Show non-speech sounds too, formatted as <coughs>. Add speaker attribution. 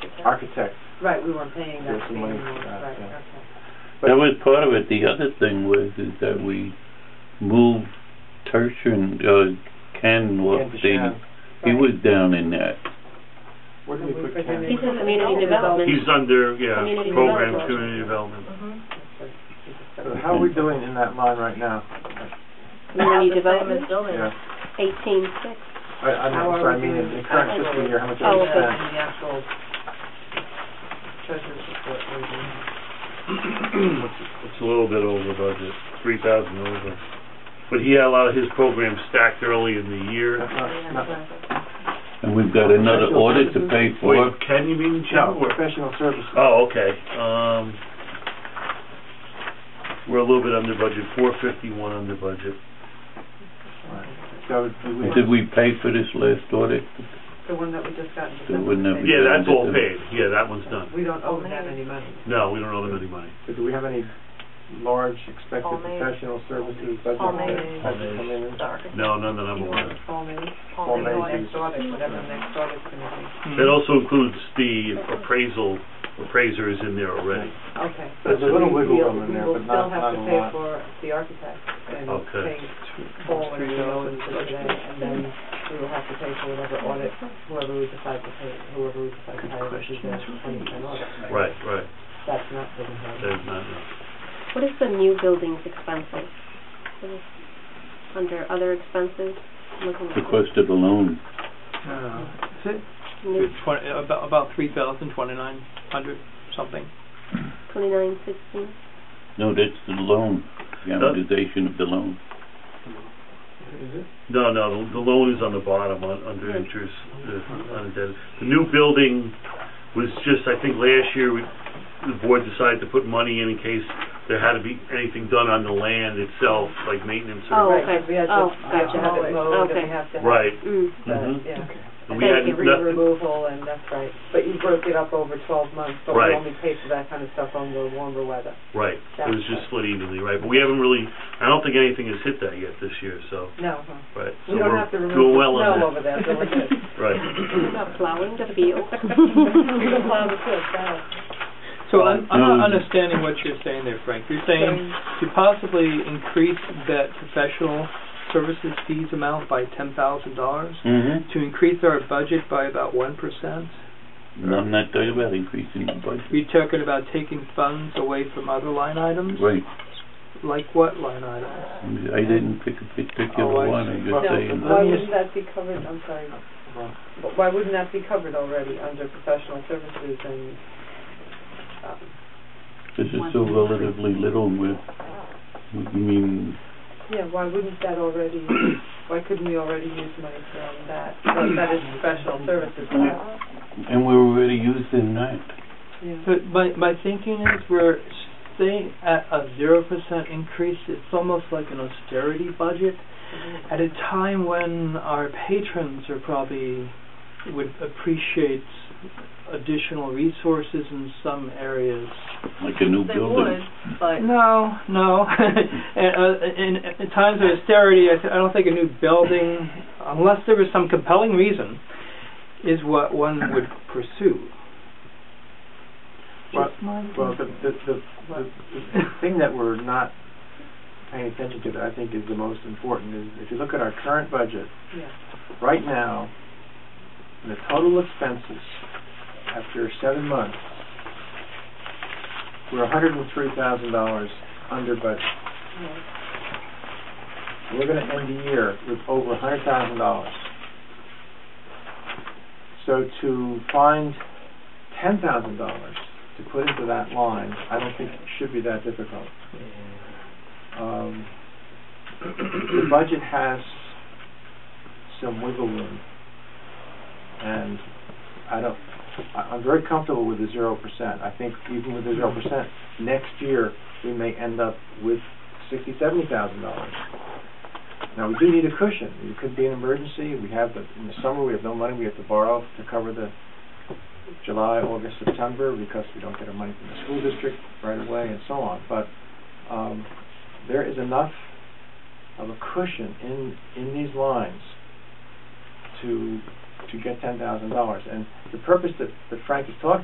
Speaker 1: architect.
Speaker 2: Right, we weren't paying that
Speaker 1: There's
Speaker 2: fee
Speaker 1: some money,
Speaker 2: anymore,
Speaker 1: uh,
Speaker 2: right,
Speaker 1: yeah.
Speaker 2: okay.
Speaker 3: That was part of it. The other thing was is that we moved Tertian, uh, Ken, what
Speaker 1: Ken
Speaker 3: they,
Speaker 1: Deschamps.
Speaker 3: he was down in that.
Speaker 1: Where did we put
Speaker 2: He's
Speaker 1: Ken?
Speaker 2: in
Speaker 4: He's in community development.
Speaker 5: He's under, yeah,
Speaker 4: Community
Speaker 5: program,
Speaker 4: development.
Speaker 5: community development.
Speaker 2: Mm-hmm.
Speaker 1: So how are we doing in that line right now?
Speaker 4: Community development,
Speaker 1: Yeah.
Speaker 4: eighteen six.
Speaker 1: I, I'm
Speaker 2: How are
Speaker 1: sorry, I
Speaker 2: we
Speaker 1: mean,
Speaker 2: doing?
Speaker 1: in current fiscal year, how much
Speaker 4: Oh,
Speaker 1: are we
Speaker 4: okay.
Speaker 1: spent?
Speaker 2: The actual treasurer's report we're
Speaker 1: Uh,
Speaker 2: doing.
Speaker 5: It's a little bit over budget, three thousand over. But he had a lot of his programs stacked early in the year.
Speaker 1: That's not- not-
Speaker 3: And we've got another audit to pay for.
Speaker 5: Wait, Ken, you mean Jim?
Speaker 1: No,
Speaker 5: or-
Speaker 1: professional services.
Speaker 5: Oh, okay, um, we're a little bit under budget, four fifty-one under budget.
Speaker 1: So do we,
Speaker 3: Did we pay for this last audit?
Speaker 2: The one that we just got in
Speaker 3: The
Speaker 2: December.
Speaker 3: one that we-
Speaker 5: Yeah, that's all
Speaker 3: Yeah.
Speaker 5: paid, yeah, that one's done.
Speaker 2: We don't owe them any money.
Speaker 5: No, we don't owe them any money.
Speaker 1: so do we have any large expected
Speaker 4: Homemade.
Speaker 1: professional services budget?
Speaker 4: Homemade.
Speaker 1: that- that should come in?
Speaker 5: No, none that I'm aware of.
Speaker 2: Paul May,
Speaker 1: Homemade.
Speaker 2: next audit, whatever the next audit's gonna be.
Speaker 5: That also includes the appraisal, appraiser is in there already.
Speaker 2: Okay.
Speaker 1: There's a
Speaker 2: So
Speaker 1: little
Speaker 2: we-
Speaker 1: wiggle
Speaker 2: we'll-
Speaker 1: room in there, but not- not a
Speaker 2: We will
Speaker 1: lot.
Speaker 2: still have to pay for the architect and
Speaker 5: Okay.
Speaker 2: pay Paul and Joe and for today, and then we will have to pay for whatever audit, whoever we decide to pay, whoever we decide to hire, which is the twenty percent audit.
Speaker 5: Right, right,
Speaker 2: That's not the
Speaker 5: that is not, no.
Speaker 4: What is the new buildings expenses? What is Under other expenses? I'm looking at
Speaker 3: The cost of the loan.
Speaker 6: Uh, is it
Speaker 4: New
Speaker 6: twenty, about, about three thousand twenty-nine hundred something?
Speaker 4: twenty-nine sixteen?
Speaker 3: No, that's the loan, the amortization of the loan.
Speaker 5: No, no, the- the loan is on the bottom, on, under interest, uh, on debt. The new building was just, I think last year, we- the board decided to put money in in case there had to be anything done on the land itself, like maintenance
Speaker 4: Oh,
Speaker 5: or,
Speaker 2: Right,
Speaker 4: okay.
Speaker 2: we had to-
Speaker 4: Oh,
Speaker 2: We have to have
Speaker 4: gotcha.
Speaker 2: it mowed, and
Speaker 4: Okay.
Speaker 2: we have to have.
Speaker 5: right.
Speaker 4: Mm.
Speaker 2: the-
Speaker 5: Mhm.
Speaker 2: Yeah.
Speaker 5: And we
Speaker 4: Thank
Speaker 5: had
Speaker 4: you.
Speaker 2: Debris
Speaker 5: nothing,
Speaker 2: removal, and that's right. But you broke it up over twelve months, but we
Speaker 5: Right.
Speaker 2: only paid for that kind of stuff on the warmer weather.
Speaker 5: right, it was just split evenly, right, but we haven't really, I don't think anything has hit that yet this year, so,
Speaker 2: No, huh.
Speaker 5: right. So
Speaker 2: we don't
Speaker 5: we're
Speaker 2: have to
Speaker 5: doing
Speaker 2: remove
Speaker 5: well
Speaker 2: the
Speaker 5: on
Speaker 2: snow
Speaker 5: that.
Speaker 2: over there, so <laughs> we're good.
Speaker 5: Right,
Speaker 4: About plowing the field. <laughs>
Speaker 2: We can plow the field, that'll-
Speaker 6: So I'm, I'm
Speaker 3: No.
Speaker 6: not understanding what you're saying there, Frank. You're saying to possibly increase that professional services fees amount by ten thousand dollars?
Speaker 3: Mm-hmm.
Speaker 6: To increase our budget by about one percent?
Speaker 3: I'm not talking about increasing the budget.
Speaker 6: You're talking about taking funds away from other line items?
Speaker 3: Right,
Speaker 6: Like what line items?
Speaker 3: I didn't pick a
Speaker 6: Oh,
Speaker 3: particular
Speaker 6: I
Speaker 3: one, I'm
Speaker 6: see.
Speaker 3: just
Speaker 1: No,
Speaker 3: saying.
Speaker 2: Why
Speaker 6: Let me
Speaker 2: wouldn't
Speaker 6: just-
Speaker 2: that be covered, I'm sorry, but why wouldn't that be covered already under professional services and, um,
Speaker 3: This is so relatively little, and we're, we mean,
Speaker 2: yeah, why wouldn't
Speaker 6: <coughs>
Speaker 2: that already, why couldn't we already use money from that? That that is professional services, right?
Speaker 3: and we're already using that.
Speaker 2: yeah.
Speaker 6: But my, my thinking is we're staying at a zero percent increase. It's almost like an austerity budget. at a time when our patrons are probably would appreciate additional resources in some areas.
Speaker 3: Like a new building.
Speaker 2: but.
Speaker 6: No, no. <laughs> and, uh, in, in times of austerity, I, th- I don't think a new building, unless there was some compelling reason, is what one would pursue.
Speaker 1: Well-
Speaker 6: Just my
Speaker 1: Well, the, the, the, the- the thing that we're not paying attention to that I think is the most important is if you look at our current budget,
Speaker 2: Yeah.
Speaker 1: right now, the total expenses after seven months, we're hundred and three thousand dollars under budget. We're gonna end the year with over hundred thousand dollars. So to find ten thousand dollars to put into that line, I don't think should be that difficult. Um, <clears throat> the budget has some wiggle room, and I don't, I, I'm very comfortable with the zero percent. I think even with the zero percent, next year, we may end up with sixty, seventy thousand dollars. Now, we do need a cushion. It could be an emergency. We have the, in the summer, we have no money. We have to borrow to cover the July, August, September because we don't get our money from the school district right away and so on. But, um, there is enough of a cushion in, in these lines to, to get ten thousand dollars. And the purpose that, that Frank is talking